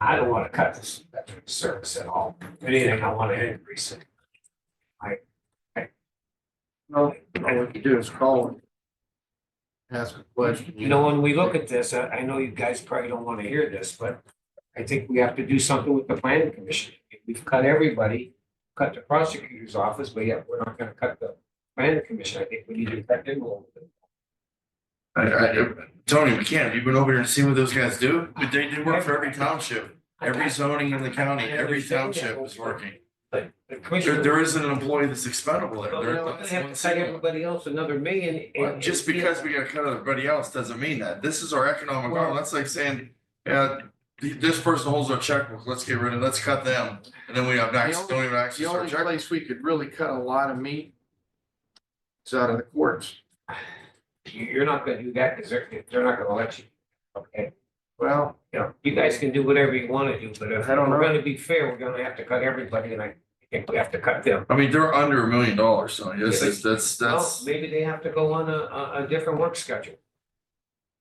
I don't wanna cut this veteran service at all, If anything, I wanna increase it. I, I. No, all we can do is call and ask a question. You know, when we look at this, I, I know you guys probably don't wanna hear this, but I think we have to do something with the planning commission. We've cut everybody, cut the prosecutor's office, but yeah, we're not gonna cut the planning commission, I think we need to cut them a little bit. I, I, Tony, we can't, you've been over here and seen what those guys do, But they, they work for every township, every zoning in the county, every township is working. But the There, commissioner. there isn't an employee that's expendable there. Well, you there. know, we're gonna have to that's cut one thing. everybody else another million. Well, and- Just because we got cut out everybody else doesn't mean that, this is our economic, arm. that's like saying, yeah, th- this person holds our checkbook, let's get rid of, let's cut them. And then we have access, don't even The access our only checkbook, place we could really cut a lot of meat is out of the courts. You- You're not gonna do that, because they're, they're not gonna let you. Okay, Well, you know, you guys can do whatever you wanna do, but if I don't we're know. gonna be fair, we're gonna have to cut everybody, and I think we have to cut them. I mean, they're under a million dollars, so yes, that's, that's, Well, that's. maybe they have to go on a, a, a different work schedule.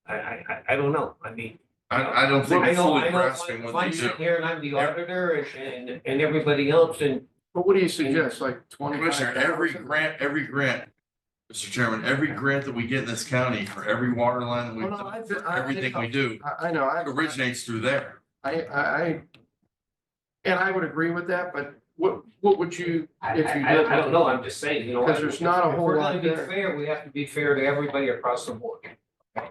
I, I, I- I don't know, I mean. I, I don't think I we're know, fully I know, grasping if what I'm they do. sitting here and I'm the auditor and, and, and everybody else, and but what do you suggest, like twenty-five Commissioner, thousand? every grant, every grant, Mr. Chairman, every grant that we get in this county for every water line, Well, no, I- that we, for I- everything we do, I, I know, I, originates through there. I, I, I- and I would agree with that, but what, what would you, I, if you I, did? I don't know, I'm just saying, you know. 'Cause there's not a if whole we're lot gonna be there. Fair, we have to be fair to everybody across the board. okay?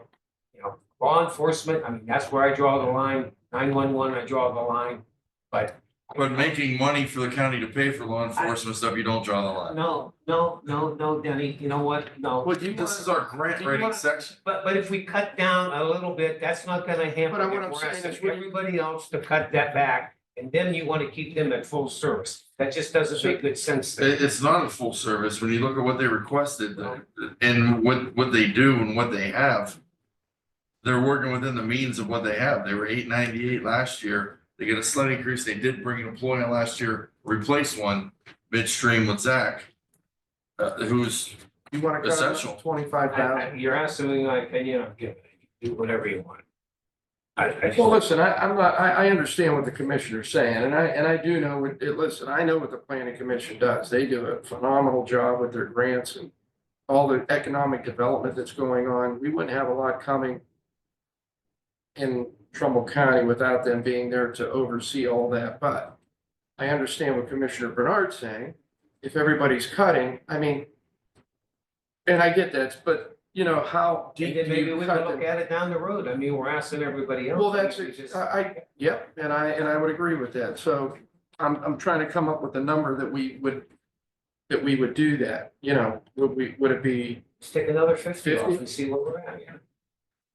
You know, law enforcement, I mean, that's where I draw the line, nine one one, I draw the line, but. But making money for the county to pay for law enforcement stuff, you don't draw the line. No, no, no, no, Denny, you know what, no. Well, do you This want, is our grant writing section. But, but if we cut down a little bit, that's not gonna hamper. But I'm- what it. I'm We're saying is asking we- Everybody else to cut that back, and then you wanna keep them at full service. That just doesn't make good sense. to me. It, it's not a full service. When you look at what they requested the- and what, what they do and what they have. They're working within the means of what they have. They were eight ninety-eight last year. They get a slight increase. They did bring an employee in last year, replace one midstream with Zach. Uh, who's, you wanna cut Essential. it twenty-five I- I- thousand? You're asking me my opinion, I'm giving it, do whatever you want. I, I Well, just, listen, I, I'm not, I, I understand what the commissioner's saying, and I, and I do know, what- it, listen, I know what the planning commission does. They do a phenomenal job with their grants and all the economic development that's going on. We wouldn't have a lot coming in Trumbull County without them being there to oversee all that, but I understand what Commissioner Bernard's saying. If everybody's cutting, I mean, and I get that, but you know, how and deep do then maybe you we cut can them? look at it down the road, I mean, we're asking everybody else. Well, that's, It's just- I, I, yep, and I, and I would agree with that. So I'm, I'm trying to come up with a number that we would, that we would do that, you know, would we, would it be, Let's take another fifty off 50? and see where we're at, yeah.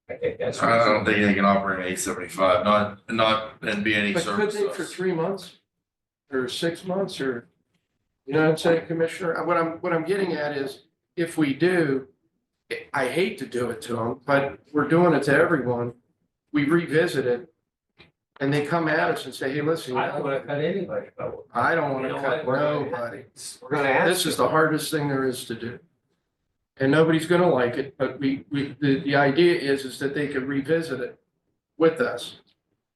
I think that's. I don't think they can operate eight seventy-five, not, not, and be any but could they for services. three months? Or six months or, you know what I'm saying, Commissioner? What I'm, what I'm getting at is if we do, I hate to do it to them, but we're doing it to everyone. We revisit it and they come at us and say, hey, listen, I don't wanna cut anybody, but we're- I don't want You to know cut what? We're gonna- nobody. we're gonna ask. This is the hardest thing there is to do. And nobody's gonna like it, but we, we, the, the idea is, is that they could revisit it with us.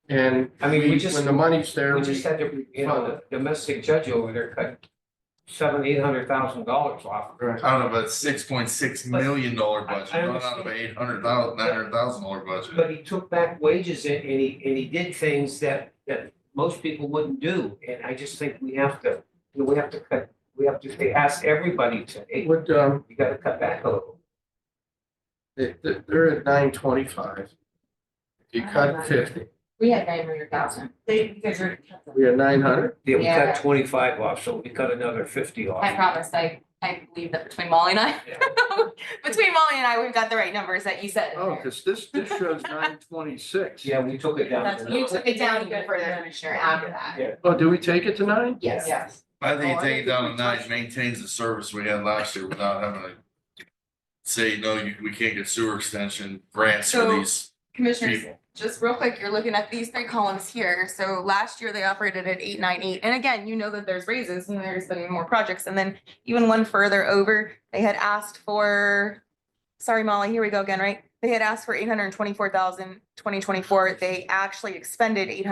And I mean, we we- just- when the money's there, We we, just had to, you know, the domestic judge over there cut seven, eight hundred thousand dollars off. right, Out of a six point six million dollar budget, I- I not out of an understand. eight hundred thousand, nine hundred thousand dollar budget. But he took back wages and, and he, and he did things that, that most people wouldn't do. And I just think we have to, you know, we have to cut, we have to they ask everybody to, hey, What, um, you gotta cut back a little. they- they- they're at nine twenty-five. If you cut fifty, We had nine hundred thousand. They figured. we are nine hundred. Yeah, we Yeah. cut twenty-five off, so we cut another fifty off. I promise, I, I believe that between Molly and I, Yeah. between Molly and I, we've got the right numbers that you said. Oh, cause this, this shows nine twenty-six. Yeah, we took it down. That's, to you nine. took it down even further, Commissioner, after that. Oh, do we take it to nine? Yes. Yes. I think Oh, I taking it think down we to nine touched- maintains the service we had last year without having to say, no, you, we can't get sewer extension grants for So- these Commissioners, people. just real quick, you're looking at these three columns here. So last year they operated at eight nine eight. And again, you know that there's raises and there's been more projects. And then even one further over, they had asked for, sorry, Molly, here we go again, right? They had asked for eight hundred and twenty-four thousand, twenty twenty-four. They actually expended eight hundred.